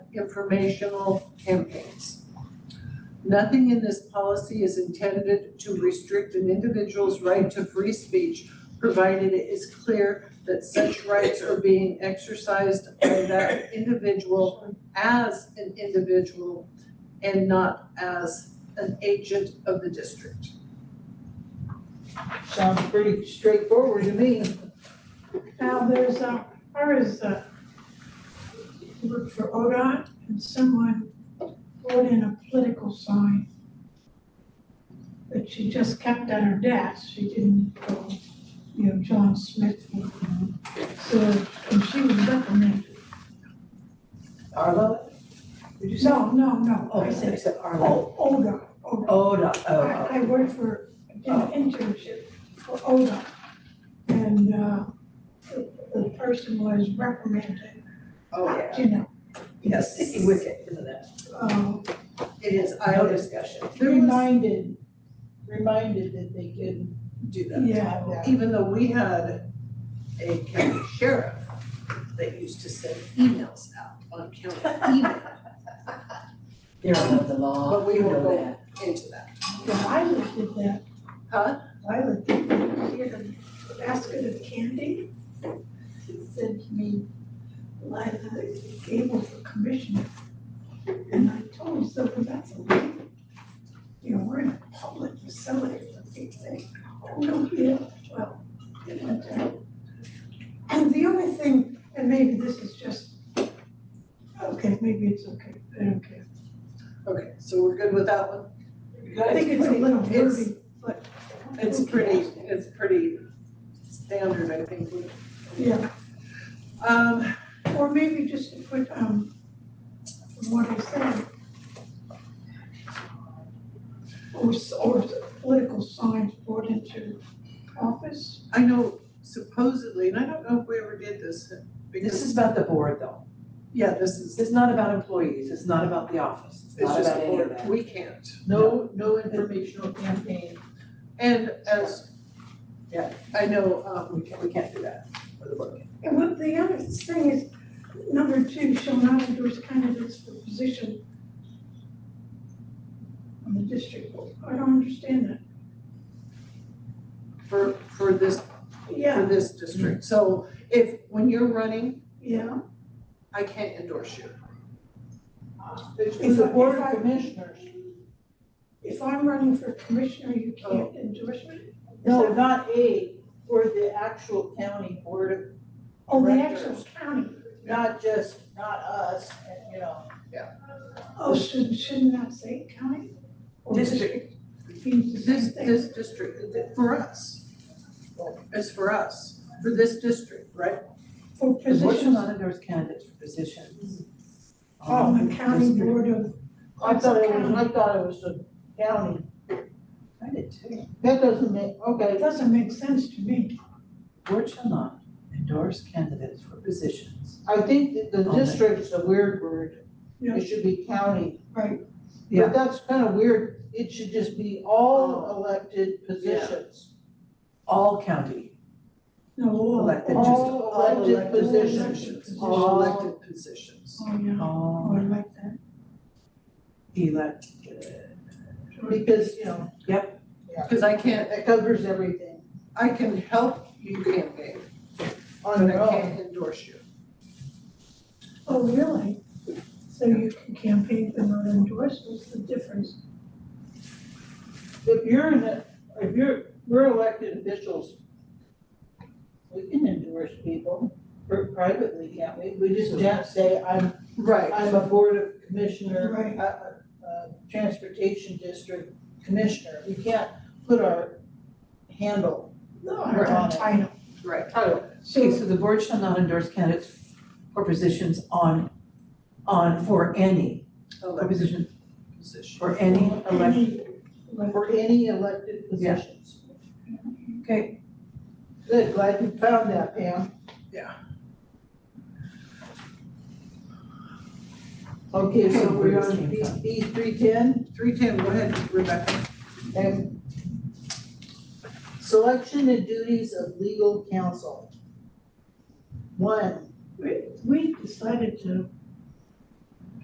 informational campaigns. Nothing in this policy is intended to restrict an individual's right to free speech, provided it is clear that such rights are being exercised by that individual as an individual and not as an agent of the district. Sounds pretty straightforward to me. Now, there's, uh, far as, uh, you look for ODOT and someone put in a political sign that she just kept at her desk, she didn't go, you know, John Smith. you know. So, and she was reprimanded. Arlo? Did you say? No, no, no, Oh, I said, except Arlo. oh, ODOT, ODOT. Oh, no, oh, oh. I, I worked for, I did an internship for ODOT. And, uh, the, the person was reprimanded, Oh, yeah. you know, Yes, wicked, isn't it? uh, It is, I No always, discussion. there was, reminded, reminded that they could do that. Yeah. even though we had a county sheriff that used to send emails out on county email You're above the law. But we you will know go- that. into that. Yeah, Violet did that. Huh? Violet did that. She had a basket of candy. She sent me live at the table for commissioner. And I told her, so that's a way. You know, we're in a public facility, and they say, oh, no, yeah, well. you know, uh, And the only thing, and maybe this is just, okay, maybe it's okay, I don't care. Okay, so we're good with that one? I think it's a little It's- wordy, but. It's pretty, it's pretty standard, I think. Yeah, Um, or maybe just to put, um, from what I said. Or, s- or political signs brought into office. I know supposedly, and I don't know if we ever did this, This because, is about the board though. yeah, this is, It's not about employees, it's not about the office, it's it's not just, about any of that. we can't. No, no informational campaign, And as, Yeah. I know, um, we can't, we can't do that for the board. And what the other thing is, number two, shall not endorse candidates for position on the district board. I don't understand that. for, for this, for Yeah, this district. So if, when you're running, yeah. I can't endorse you. It's If the I- board if of I- commissioners. If I'm running for commissioner, you can't endorse me? No, not a, for the actual county board of, Oh, the actual county. not just, not us, and you know. Oh, shouldn't, shouldn't that say county? Or District. It means the same This, thing. this district, for us. It's for us, for this district, right? For The board should positions not endorse candidates for positions. on Oh, the county district. board of, I thought it was, I thought it was the county. I did too. That doesn't make, okay, it doesn't make sense to me. Board shall not endorse candidates for positions. I think that the Okay. district's a weird word. Yeah. It should be county. Right. Yeah. But that's kind of weird. It should just be all elected positions. All county No, all. elected, just All elected elected positions. All elected positions. Oh, yeah, oh, I all like that. elected. Because, you know, Because I can't, that covers everything I can help you campaign, on but their I own. can't endorse you. Oh, really? So you can campaign for not endorsed, what's the difference? If you're in a, if you're, we're elected officials, we can endorse people or privately, can't we? We just can't say, I'm Right. I'm a board of commissioner, Right. uh, uh, transportation district commissioner, we can't put our handle No, Right. I title. Right. Okay, So, so the board shall not endorse candidates for positions on, on, for any, for Elected position, position. for any elected. any, like, for any elected Yeah. positions. Okay. Good, glad you found that, Pam. Yeah. Okay, so Okay, we're where this on B, came from. B three ten, Three ten, go ahead, Rebecca. and selection and duties of legal counsel. One, we, we decided to